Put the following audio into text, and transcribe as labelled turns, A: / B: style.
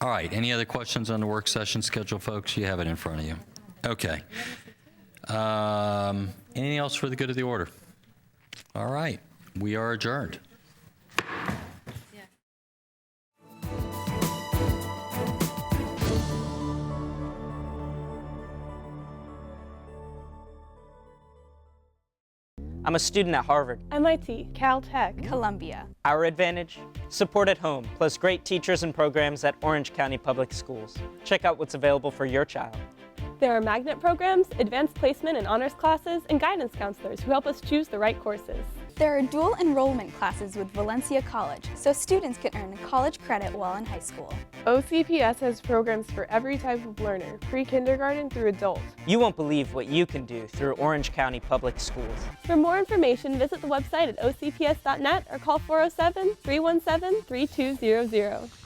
A: All right, any other questions on the work session schedule, folks? You have it in front of you. Okay. Um, Anything else for the good of the order? All right, we are adjourned.
B: I'm a student at Harvard.
C: MIT, Caltech,
D: Columbia.
B: Our advantage? Support at home, plus great teachers and programs at Orange County Public Schools. Check out what's available for your child.
C: there are magnet programs, advanced placement and honors classes, and guidance counselors who help us choose the right courses.
D: There are dual enrollment classes with Valencia College, so students can earn college credit while in high school.
E: OCPS has programs for every type of learner, pre kindergarten through adult.
B: You won't believe what you can do through Orange County Public Schools.
C: For more information, oh visit the website at ocps.net or call 407 317 3200.